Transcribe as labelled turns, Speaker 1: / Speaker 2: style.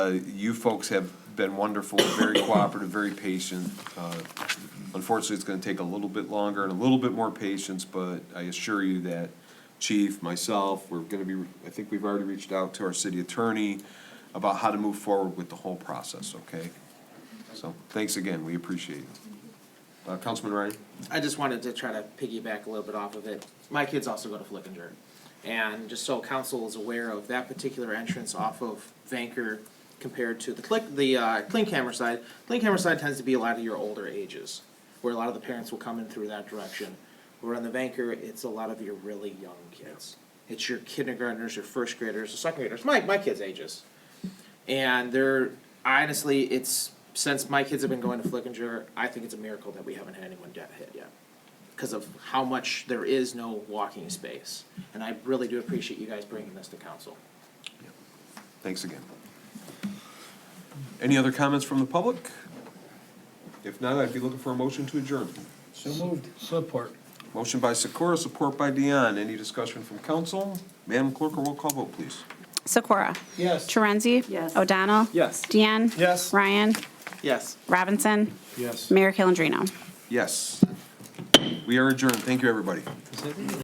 Speaker 1: Uh, You folks have been wonderful, very cooperative, very patient. Uh, Unfortunately, it's gonna take a little bit longer and a little bit more patience, but I assure you that chief, myself, we're gonna be, I think we've already reached out to our city attorney about how to move forward with the whole process, okay? So, thanks again, we appreciate it. Uh, Councilman Ryan?
Speaker 2: I just wanted to try to piggyback a little bit off of it. My kids also go to Flickinger. And just so council is aware of that particular entrance off of Vanker compared to the click, the, uh, Clean Camera side, Clean Camera side tends to be a lot of your older ages, where a lot of the parents will come in through that direction. Where on the Vanker, it's a lot of your really young kids. It's your kindergartners, your first graders, your second graders, my, my kids' ages. And they're honestly, it's since my kids have been going to Flickinger, I think it's a miracle that we haven't had anyone get hit yet. Because of how much there is no walking space. And I really do appreciate you guys bringing this to council.
Speaker 1: Thanks again. Any other comments from the public? If not, I'd be looking for a motion to adjourn.
Speaker 3: So moved. Support.
Speaker 1: Motion by Sikora, support by Dion. Any discussion from council? Madam Clerk, a roll call vote, please.
Speaker 4: Sikora?
Speaker 3: Yes.
Speaker 4: Torenzi?
Speaker 5: Yes.
Speaker 4: O'Donnell?
Speaker 3: Yes.
Speaker 4: Deanne?
Speaker 3: Yes.
Speaker 4: Ryan?
Speaker 2: Yes.
Speaker 4: Robinson?
Speaker 3: Yes.
Speaker 4: Mayor Calendino?
Speaker 1: Yes. We are adjourned. Thank you, everybody.